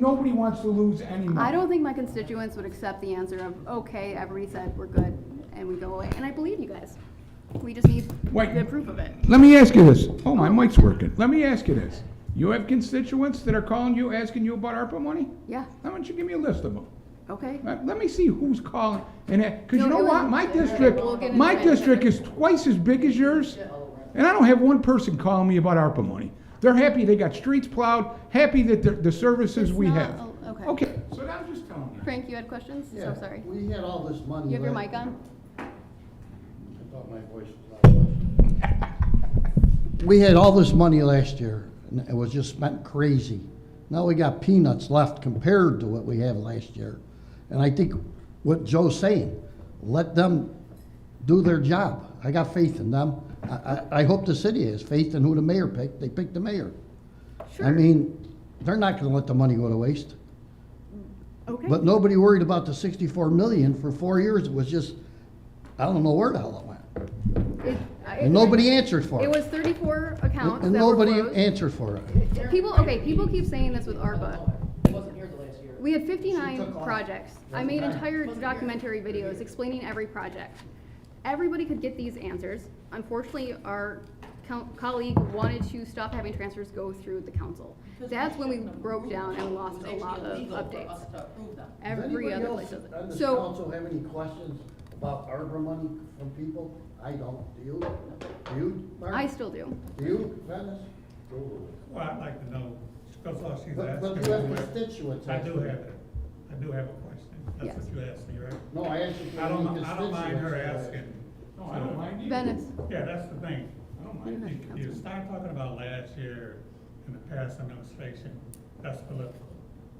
Nobody wants to lose any money. I don't think my constituents would accept the answer of, okay, every said, we're good, and we go away. And I believe you guys. We just need Wait. the proof of it. Let me ask you this. Oh, my mic's working. Let me ask you this. You have constituents that are calling you, asking you about ARPA money? Yeah, Why don't you give me a list of them? Okay. Let let me see who's calling and, because you No, know it what? was- My it was- district, we'll get my into it. district is twice as big as yours. And I don't have one person calling me about ARPA money. They're happy they got streets plowed, happy that the, the services It's we not have. a- okay. Okay, so now I'm just telling you. Frank, you had questions? Yeah, So sorry. We had all this money. You have your left. mic on? I thought my voice was loud enough. We had all this money last year, and it was just spent crazy. Now we got peanuts left compared to what we had last year. And I think what Joe's saying, let them do their job. I got faith in them. I, I, I hope the city has faith in who the mayor picked. They picked the mayor. I Sure. mean, they're not gonna let the money go to waste. Okay. But nobody worried about the sixty-four million for four years, it was just, I don't know where the hell it went. It- I- And nobody answered for it. It was thirty-four accounts And that were nobody closed. answered for it. People, okay, people keep saying this with ARPA. It wasn't here the last year. We had She fifty-nine took off. projects. I made entire documentary videos explaining every project. Everybody could get these answers. Unfortunately, our co- colleague wanted to stop having transfers go through the council. That's when we broke down and lost a lot of updates. Every other place does it. So, have any questions about ARPA money from people? I don't, do you? Do you, I still do. Do you, Dennis? Well, I'd like to know, because I see But- that. but you have constituents I do asking. have it, I do have a question, that's Yes. what you asked me, right? No, I asked you. I don't, mi- I don't mind her uh, asking. No, I don't mind either. Venice, Yeah, that's the thing, I don't mind, Councilman. you, you start talking about last year and the past administration, that's political.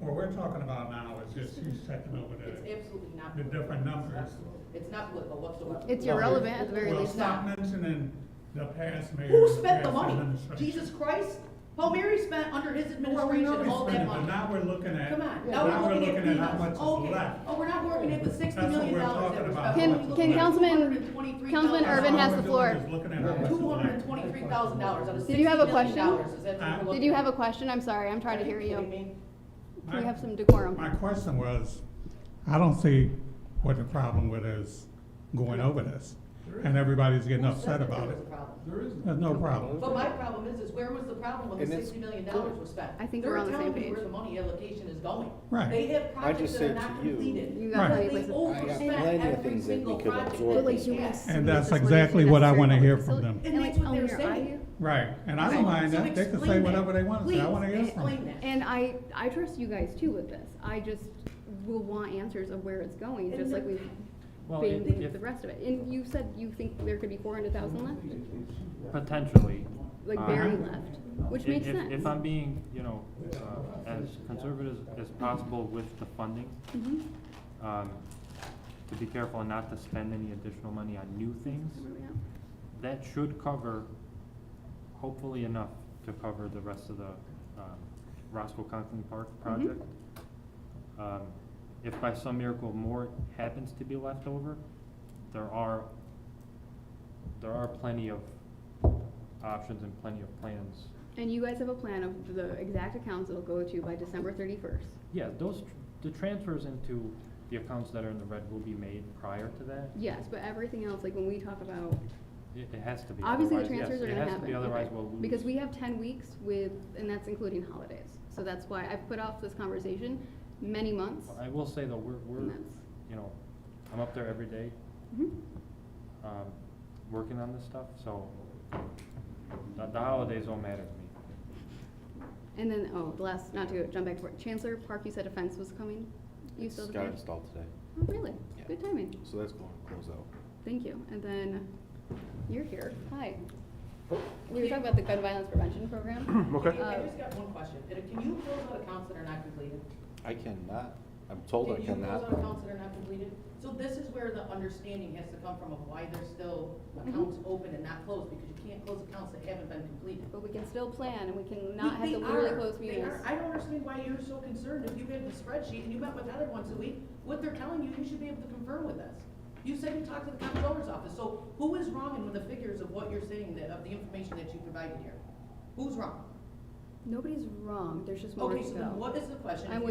What we're talking about now is just you checking over It's the, absolutely not. the different numbers. It's not political whatsoever. it's irrelevant at the very Well, least stop now. mentioning the past mayor. Who and spent the past money? administration. Jesus Christ? Paul Mary spent under his Well, we administration know we all spent that it, but money. now we're looking at, Come on, now we're looking at how much peanuts. is Okay. left. Oh, we're not working at the sixty That's what million we're dollars that talking was about. spent. Can, can Councilman, Councilman Urban has the floor. Two hundred and twenty-three thousand dollars out of Did sixty you have a million dollars. question? Is that what we're Did looking you at? have a question? I'm sorry, I'm trying to hear Are you. kidding me? Can we have some decorum? My question was, I don't see what the problem with is going over this, and everybody's getting Who said that upset there about was it. a problem? There is There's no problem. But my problem is, is where was the problem when the sixty million dollars was spent? I think we're on the same They're telling me where page. the money allocation is going. Right. They have projects just that are said not to you- completed. You got Right. plenty of They places. plenty overspent of every things that we single could project absorb. that they Like, you had. And that's exactly what I wanna hear from them. And that's Oh, what they're saying. Right, and I don't mind that, they can say whatever they want to say, I want to hear from them. And I, I trust you guys too with this. I just will want answers of where it's going, just like we've Well, been if- with if- the rest of it. And you said you think there could be four hundred thousand left, Potentially. like Uh, very left, which If- makes if- sense. If I'm being, you know, uh, as conservative as possible with the funding, Mhm. um, to be careful not to spend any additional money on new things, that should cover, hopefully enough to cover the rest of the um, Roscoe Conkling Park Mm-hmm. project. Um, If by some miracle more happens to be left over, there are, there are plenty of options and plenty of plans. And you guys have a plan of the exact accounts it'll go to by December thirty-first. Yeah, those, tr- the transfers into the accounts that are in the red will be made prior to that. Yes, but everything else, like when we talk about, It it has to be. obviously the otherwise- yes, transfers are gonna happen. It has to be, otherwise okay. we'll lose. Because we have ten weeks with, and that's including holidays. So that's why I've put off this conversation many months. I will say though, we're, And we're, that's- you know, I'm up there every day, Mhm. um, working on this stuff, so um, the, the holidays don't matter to me. And then, oh, the last, not to jump back to work, Chancellor Park, you said a fence was coming? You still Got there? installed today, Oh, really? Yeah. Good timing. so that's going to close out. Thank you. And then, you're here. Hi. Oh. We were talking about the gun violence prevention program. Can you- I just got one question. Did- Can you close out accounts that are not completed? I cannot, I'm told I Can you close out cannot. accounts that are not completed? So this is where the understanding has to come from of why there's still accounts open and not closed, because you can't close accounts that haven't been completed. But we can still plan and we can not have They the literally are. closed They meetings. are. I don't understand why you're so concerned. If you have the spreadsheet and you met with Heather once a week, what they're telling you, you should be able to confirm with us. You said you talked to the comptroller's office, so who is wrong in the figures of what you're saying, that, of the information that you provided here? Who's wrong? Nobody's wrong. There's just more to Okay, so then go. what is the question? I'm If